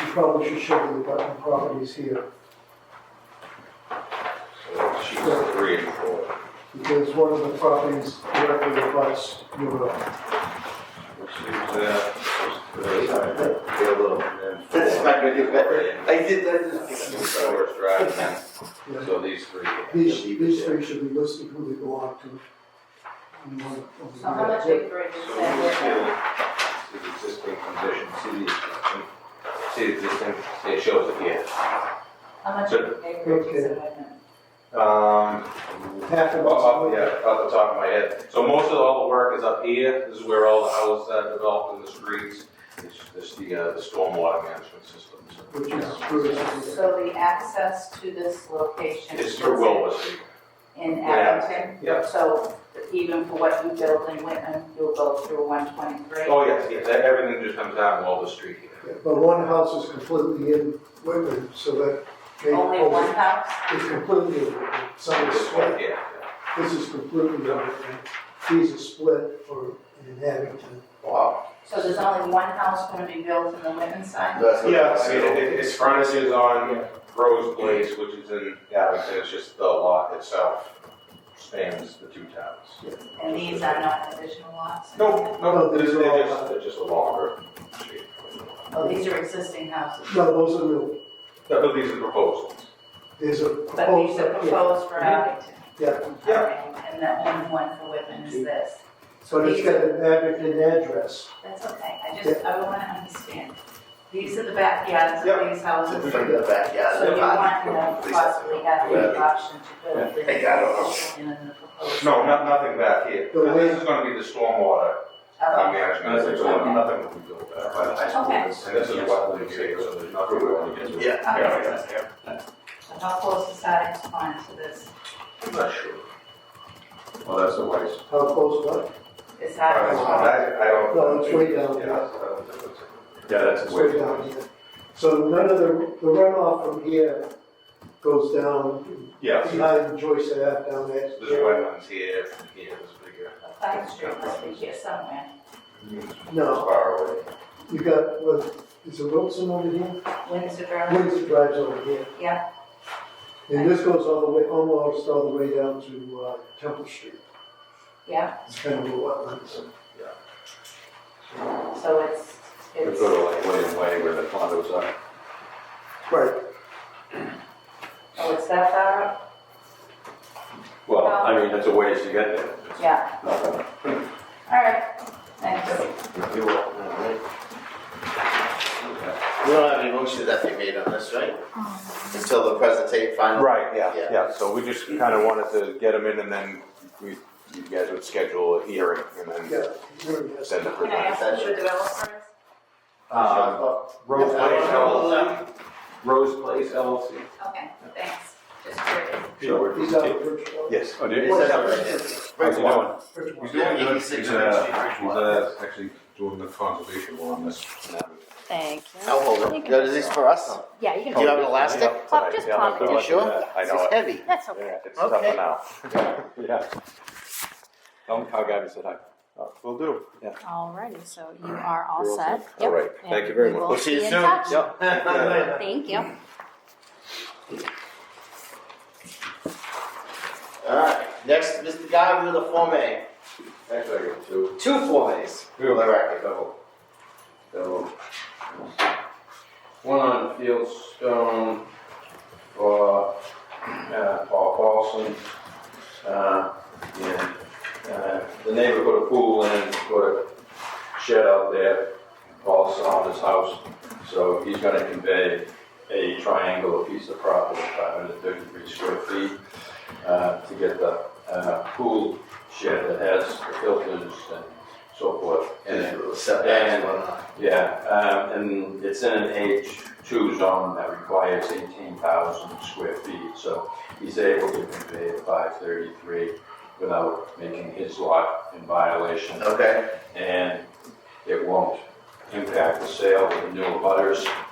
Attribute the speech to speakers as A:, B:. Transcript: A: you probably should show the abutting properties here,
B: So she's three and four.
A: because one of the properties directly abuts your road.
B: She's, uh, she's, uh,
C: little.
B: and then four.
C: That's not gonna do better. I did, I
B: And
C: just.
B: four is driving that.
A: Yeah.
B: so these three.
A: These,
C: leave it
A: these
C: there.
A: three should be listed who they belong to. And one of
D: So how much
A: them-
D: are you bringing
B: So we
D: that
B: see the existing condition, see the, see the existing, it shows it here.
D: How much
B: So-
D: acreage is it?
B: Um,
A: Half of
B: Well, off-
A: it's-
B: yeah, off the top of my head. So most of all the work is up here. This is where all the houses are developed in the streets. It's just the, uh, the stormwater management system.
A: Which is true.
D: So the access to this location
B: It's
D: is
B: through
D: in
B: Wilbur Street.
D: Abington?
B: Yeah.
D: So even for what you build in Whitman, you'll go through one twenty-three?
B: Oh, yes, yes, everything just comes down Wilbur Street here.
A: But one house is completely in Whitman, so that they,
D: Only one house?
A: it's completely, in Whitman. some is
B: This
A: split.
B: one, yeah.
A: This is completely in Whitman. These are split for an Abington.
C: Wow.
D: So there's only one house gonna be built in the Whitman side?
C: That's what-
B: Yeah, I mean, it- it- its frontage is on Rose Place, which is in Abington. It's just the lot itself spans the two towns.
D: And these are not additional lots?
B: No, no,
A: No,
B: they're
A: these are all-
B: just, they're just a longer street.
D: Oh, these are existing houses?
A: No, those are new.
B: But these are proposed.
A: There's a
D: But these
A: proposed,
D: are
A: yeah,
D: proposed for Abington?
A: yeah.
D: Okay, And the only one for Whitman is this?
A: But it's got an Abington address.
D: That's okay, I just, I wanna understand. These are the backyards
B: Yep.
D: of these
C: It's a
D: houses,
C: thing in the backyard.
D: so you want
C: Yeah.
D: to possibly have the option to build this.
C: Hey, I don't know.
D: in the proposed-
B: No, not, nothing back here.
A: The way-
B: This is gonna be the stormwater uh,
D: Okay.
B: management.
D: Nothing's going on.
B: Nothing will be built back by the high school.
D: Okay.
B: And this is what we say, so there's nothing we're gonna get to.
C: Yeah.
B: Yeah, yeah, yeah.
D: So How close is Abington Pond to this?
B: I'm not sure.
E: Well, that's the waste.
A: How close was it?
D: Is
B: I
D: that,
B: I- I don't.
A: No, it's way down
B: Yeah,
A: there.
B: I don't think it's-
E: Yeah, that's
A: It's
E: the
A: way
E: waste.
A: down here. So none of the the runoff from here goes down
E: Yeah.
A: behind Joyce Ave down that.
B: There's wetlands here, here, there's bigger,
D: the Pike Street must be here somewhere.
A: No,
B: far away.
A: you got, what, is it Wilson over here?
D: Windsor Road,
A: Windsor Drive's over here.
D: yeah,
A: And this goes all the way, almost all the way down to uh, Temple Street.
D: yeah,
A: It's kind of a wetlands.
D: so it's,
E: It's
D: it's,
E: sort of like William Way where the condos are.
A: Right.
D: oh, it's that far up?
E: Well, I mean, it's a ways to get there.
D: Yeah,
E: Nothing.
D: all right, thanks.
E: You will.
C: We don't have any motion that they made on this, right? Until the presentate final.
B: Right, yeah,
C: Yeah.
B: yeah, so we just kinda wanted to get them in and then we, you guys would schedule a hearing and then
A: Yeah. really, yes.
B: send it.
D: Can I ask who the developer
B: Um, Rose Place LLC, Rose Place LLC.
D: is? Okay, thanks, just curious.
E: So we're-
A: He's out of Bridgeport.
B: Yes.
E: Oh, dude.
C: Is that
E: How's
C: right?
E: it going?
A: Bridgeport.
B: He's doing good. He's,
C: 86
B: uh,
C: Bridge
B: he's,
C: Walk.
B: uh, actually doing the conservation law on this.
F: Thank you.
C: I'll hold it. That is this for us?
F: Yeah, you
C: Do you
F: can.
C: have an elastic?
F: Pop- just
B: Yeah,
F: pop it.
C: You sure?
B: I know
C: It's
B: it.
C: heavy.
F: That's okay.
B: Yeah, It's
C: Okay.
B: tougher now. Yeah. Tell him how Gabby said hi. Will do. Yeah.
F: Alrighty, so you are all
B: You're all
F: set.
B: set. All right.
F: Yep,
B: Thank
F: and
B: you very
F: we
B: much.
F: will
C: We'll see you
F: be in
C: soon.
F: touch.
C: Yep.
F: Thank you.
C: All right, next, Mr. Guy, with the Form A.
B: Actually, I got two.
C: Two Form As.
B: We were like a double. Double. One on Fieldstone for uh, Paul Paulson. Uh, and uh, the neighbor put a pool in, put a shed out there. Paul saw his house, so he's going to convey a triangular piece of property, 533 square feet, uh, to get the uh, pool shed that has the filters and so forth. in it.
C: Setbacks, whatnot.
B: Yeah, um, and it's in an H two zone that requires eighteen thousand square feet, so he's able to convey at five thirty-three without making his lot in violation,
C: Okay,
B: and it won't impact the sale of the new butters,
E: uh, 呃